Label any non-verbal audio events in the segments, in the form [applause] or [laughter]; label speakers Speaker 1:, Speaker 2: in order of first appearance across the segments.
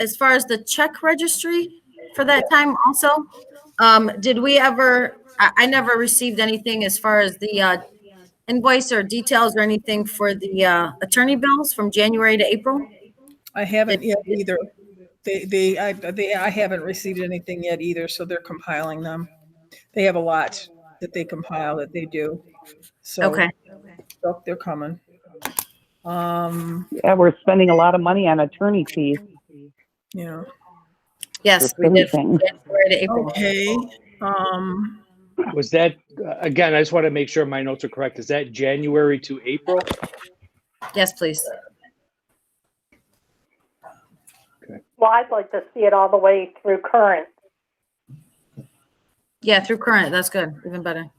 Speaker 1: as far as the check registry for that time also, um, did we ever, I, I never received anything as far as the, uh, invoice or details or anything for the, uh, attorney bills from January to April?
Speaker 2: I haven't yet either. They, they, I, they, I haven't received anything yet either, so they're compiling them. They have a lot that they compile that they do. So
Speaker 1: Okay,
Speaker 2: so they're coming. Um,
Speaker 3: Yeah, uh, we're spending a lot of money on attorney fees
Speaker 2: you know,
Speaker 1: yes,
Speaker 3: for
Speaker 1: we did. from
Speaker 3: everything.
Speaker 1: January to April.
Speaker 2: okay, um,
Speaker 4: Was that, uh, again, I just want to make sure my notes are correct. Is that January to April?
Speaker 1: Yes, please.
Speaker 5: Well, I'd like to see it all the way through current.
Speaker 1: Yeah, through current, that's good, even better.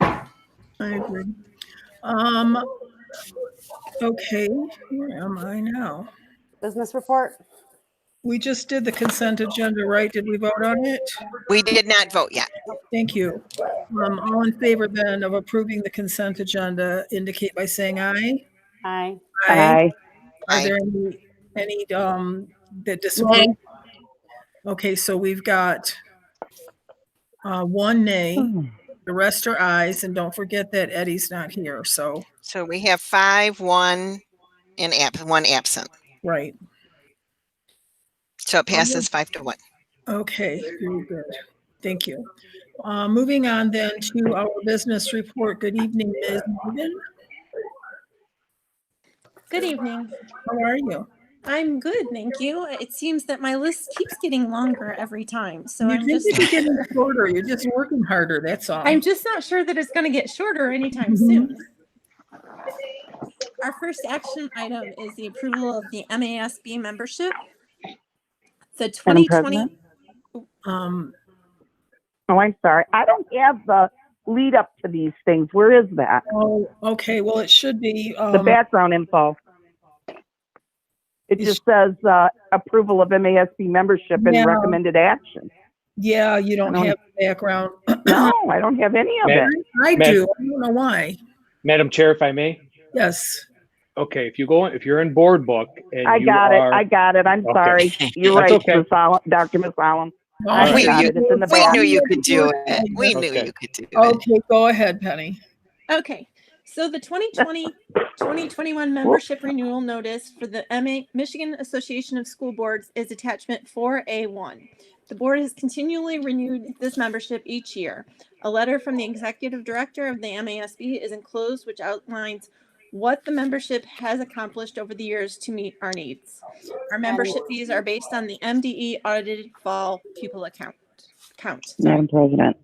Speaker 2: I agree. Um, okay, where am I now?
Speaker 6: Business report?
Speaker 2: We just did the consent agenda, right? Did we vote on it?
Speaker 7: We did not vote yet.
Speaker 2: Thank you. Um, all in favor then of approving the consent agenda indicate by saying aye.
Speaker 6: Aye.
Speaker 3: Aye.
Speaker 2: Are
Speaker 7: Aye.
Speaker 2: there any, any, um, that disagree? Okay, so we've got uh, one nay, the rest are ayes, and don't forget that Eddie's not here, so,
Speaker 7: So we have five, one, and ab, one absent.
Speaker 2: right.
Speaker 7: So it passes five to one.
Speaker 2: Okay, very good. Thank you. Uh, moving on then to our business report. Good evening, Ms. Morgan.
Speaker 8: Good evening.
Speaker 2: How are you?
Speaker 8: I'm good, thank you. It seems that my list keeps getting longer every time, so
Speaker 2: You
Speaker 8: I'm
Speaker 2: seem
Speaker 8: just
Speaker 2: to be
Speaker 8: [laughs]
Speaker 2: getting shorter. You're just working harder, that's all.
Speaker 8: I'm just not sure that it's going to get shorter anytime
Speaker 3: Mm-hmm.
Speaker 2: Mhm.
Speaker 8: soon. Our first action item is the approval of the MASB membership. The
Speaker 3: Madam
Speaker 8: 2020
Speaker 3: President?
Speaker 2: Um,
Speaker 3: Oh, I'm sorry. I don't have the lead up to these things. Where is that?
Speaker 2: oh, okay, well, it should be,
Speaker 3: The
Speaker 2: um,
Speaker 3: background info. It
Speaker 2: Is-
Speaker 3: just says, uh, approval of MASC membership
Speaker 2: Yeah.
Speaker 3: and recommended action.
Speaker 2: yeah, you don't
Speaker 3: I don't-
Speaker 2: have the background.
Speaker 3: No, I don't have any of it.
Speaker 4: Ma'am?
Speaker 2: I
Speaker 4: Ma'am.
Speaker 2: do. I don't know why.
Speaker 4: Madam Chair, if I may?
Speaker 2: Yes.
Speaker 4: Okay, if you go, if you're in board book and
Speaker 3: I
Speaker 4: you
Speaker 3: got it.
Speaker 4: are-
Speaker 3: I got it. I'm
Speaker 4: Okay.
Speaker 3: sorry.
Speaker 4: [laughs]
Speaker 3: You're
Speaker 4: That's
Speaker 3: right,
Speaker 4: okay.
Speaker 3: Ms. Allen- Dr. Masalim.
Speaker 4: All
Speaker 3: I
Speaker 7: right.
Speaker 3: got it. It's in the
Speaker 7: We
Speaker 3: back.
Speaker 7: knew you could do it. We knew
Speaker 4: Okay.
Speaker 7: you could do it.
Speaker 2: Okay, go ahead, Penny.
Speaker 8: Okay, so the 2020, 2021 membership renewal notice for the MA, Michigan Association of School Boards is attachment 4A1. The board has continually renewed this membership each year. A letter from the executive director of the MASB is enclosed, which outlines what the membership has accomplished over the years to meet our needs. Our membership fees are based on the MDE audited fall pupil account, count.
Speaker 3: Madam President,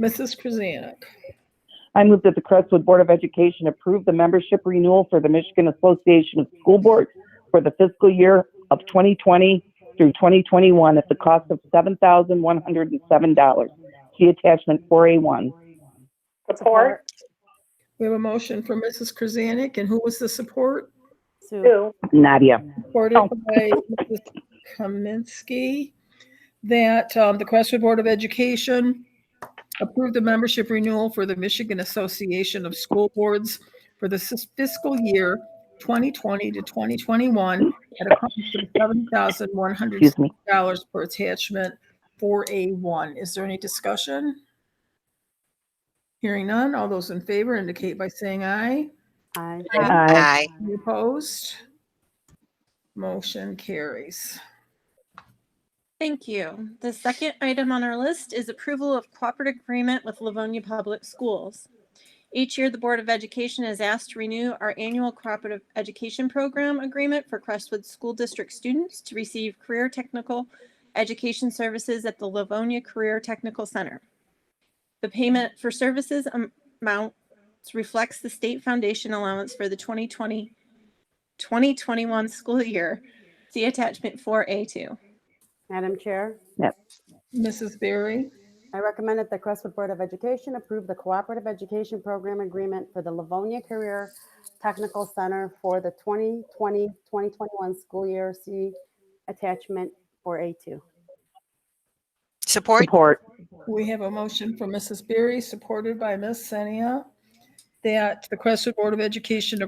Speaker 2: Mrs. Krasanik.
Speaker 3: I move that the Crestwood Board of Education approve the membership renewal for the Michigan Association of School Boards for the fiscal year of 2020 through 2021 at the cost of $7,107. See attachment 4A1.
Speaker 5: Support,
Speaker 2: We have a motion for Mrs. Krasanik, and who was the support?
Speaker 6: Sue?
Speaker 5: two,
Speaker 3: Nadia.
Speaker 2: Supported
Speaker 3: Oh.
Speaker 2: by Mrs. Kaminsky. That um, the Crestwood Board of Education approved the membership renewal for the Michigan Association of School Boards for the sis- fiscal year 2020 to 2021 at a cost of $7,100
Speaker 3: Excuse me.
Speaker 2: per attachment 4A1. Is there any discussion? Hearing none, all those in favor indicate by saying aye.
Speaker 6: Aye.
Speaker 3: Aye.
Speaker 7: Aye.
Speaker 2: Any Opposed? Motion carries.
Speaker 8: Thank you. The second item on our list is approval of cooperative agreement with Livonia Public Schools. Each year, the Board of Education is asked to renew our annual cooperative education program agreement for Crestwood School District students to receive career technical education services at the Livonia Career Technical Center. The payment for services am- amount reflects the state foundation allowance for the 2020 2021 school year. See attachment 4A2.
Speaker 6: Madam Chair,
Speaker 2: Mrs. Berry,
Speaker 6: I recommend that the Crestwood Board of Education approve the Cooperative Education Program Agreement for the Livonia Career Technical Center for the 2020-2021 school year. See attachment for A2.
Speaker 7: Support?
Speaker 3: Support.
Speaker 2: we have a motion from Mrs. Berry, supported by Ms. Senia, that the Crestwood Board of Education